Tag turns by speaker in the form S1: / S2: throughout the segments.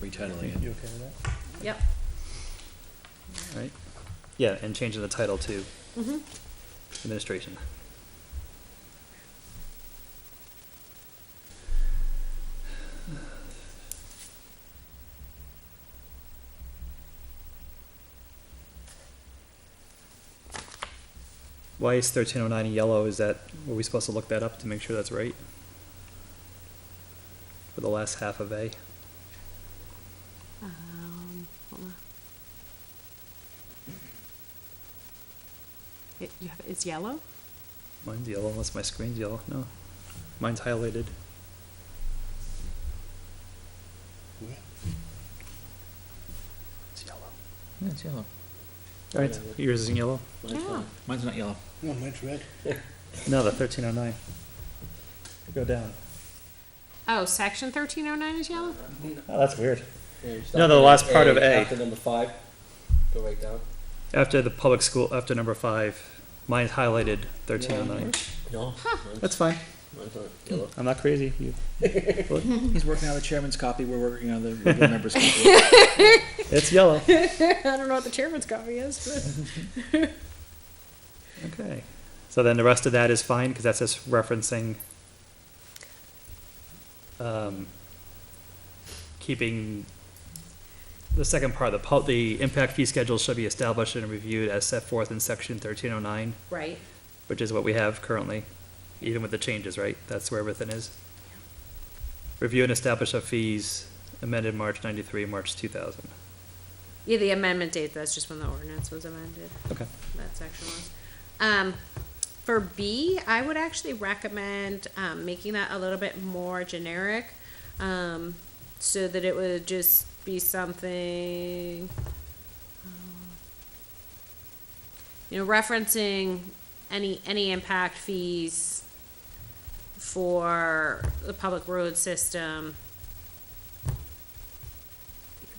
S1: retitling
S2: You okay
S1: it.
S2: with
S3: Yep.
S2: that? Right? Yeah, and changing the title to
S3: Mm-hmm.
S2: administration. Why is thirteen oh nine yellow? Is that, were we supposed to look that up to make sure that's right? For the last half of A?
S3: Um, hold on. It, you have, it's yellow?
S2: Mine's yellow unless my screen's yellow. No. Mine's highlighted. It's yellow.
S4: Yeah, it's yellow.
S2: All right, yours is in yellow?
S3: Yeah.
S4: Mine's not yellow.
S5: No, mine's red.
S2: No, the thirteen oh nine. Go down.
S3: Oh, section thirteen oh nine is yellow?
S2: Oh, that's weird. No, the last part of A.
S6: After number five, go right down.
S2: After the public school, after number five, mine's highlighted thirteen oh nine.
S6: No.
S2: That's fine.
S6: Mine's not yellow.
S2: I'm not crazy. You,
S4: Hmm. He's working on the chairman's copy. We're working on the regular members' copy.
S2: it's yellow.
S3: I don't know what the chairman's copy is,
S2: Okay. So then the rest of that is fine because that's just referencing um, keeping the second part, the, pol- the impact fee schedule should be established and reviewed as set forth in section thirteen oh nine,
S3: but. Right.
S2: which is what we have currently, even with the changes, right? That's where everything is. Review and establish of fees amended March ninety-three, March two thousand.
S3: Yeah, the amendment date, that's just when the ordinance was amended.
S2: Okay.
S3: that section was. Um, for B, I would actually recommend, um, making that a little bit more generic, um, so that it would just be something, um, you know, referencing any, any impact fees for the public road system.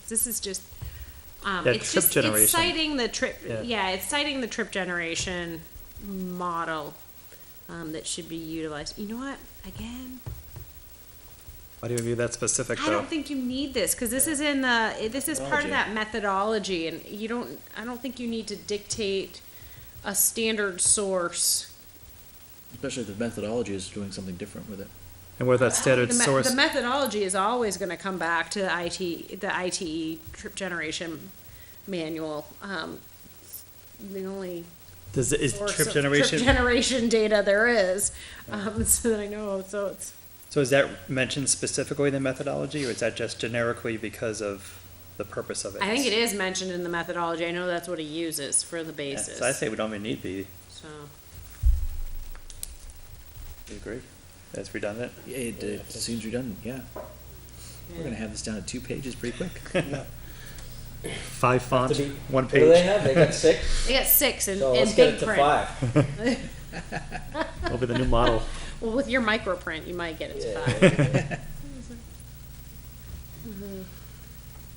S3: This is just, um,
S2: Yeah,
S3: it's
S2: trip
S3: just,
S2: generation.
S3: it's citing the trip,
S2: Yeah.
S3: yeah, it's citing the trip generation model, um, that should be utilized. You know what, again,
S2: Why do you review that specific
S3: I
S2: though?
S3: don't think you need this, cause this is in the, it- this is part of that methodology, and you don't, I don't think you need to dictate a standard source.
S4: Especially if the methodology is doing something different with it.
S2: And where that standard
S3: Uh, The me-
S2: source.
S3: The methodology is always gonna come back to the IT, the ITE trip generation manual, um, the only
S2: Does, it- is
S3: source
S2: trip
S3: of
S2: generation?
S3: trip generation data there is, um, so that I know, so it's.
S2: So is that mentioned specifically in the methodology, or is that just generically because of the purpose of it?
S3: I think it is mentioned in the methodology. I know that's what he uses for the
S2: Yeah,
S3: basis.
S2: So I say we don't even need the,
S3: So,
S2: you agree? That's redundant?
S4: Yeah, It, it seems redundant, yeah. We're gonna have this down to two pages pretty quick.
S2: Five font, one
S6: What do they
S2: page,
S6: have? They got six,
S3: they got six in,
S6: so
S3: in
S6: let's get
S3: big
S6: it to
S3: print.
S6: five.
S2: over the new model.
S3: Well, with your micro print, you might get it to
S6: Yeah.
S3: five.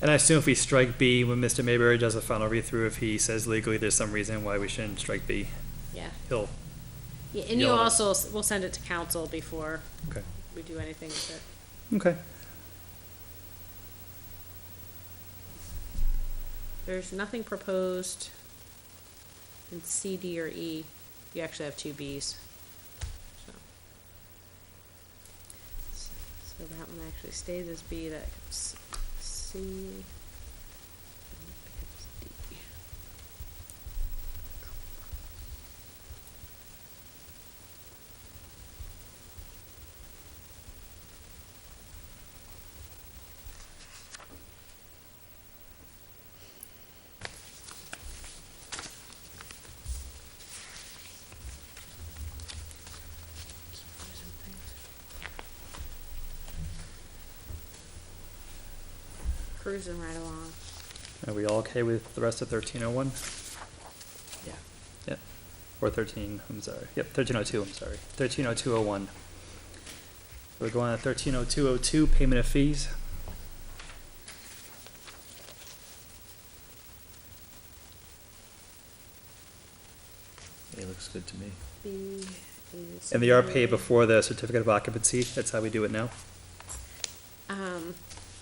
S2: And I assume if we strike B, when Mr. Mayberry does a final read-through, if he says legally there's some reason why we shouldn't strike B,
S3: Yeah.
S2: he'll,
S3: yeah. And you
S2: Yellow.
S3: also s- we'll send it to council before
S2: okay,
S3: we do anything with it.
S2: okay.
S3: There's nothing proposed in C, D, or E. You actually have two Bs. So, so that one actually stays as B, that becomes C. and that becomes D. Keep losing things. Cruising right along.
S2: Are we all okay with the rest of thirteen oh one?
S4: Yeah.
S2: Yep, or thirteen, I'm sorry, yep, thirteen oh two, I'm sorry, thirteen oh two oh one. We're going to thirteen oh two oh two, payment of fees.
S4: It looks good to me.
S3: B is.
S2: And they are paid before the certificate of occupancy, that's how we do it now.
S3: Um,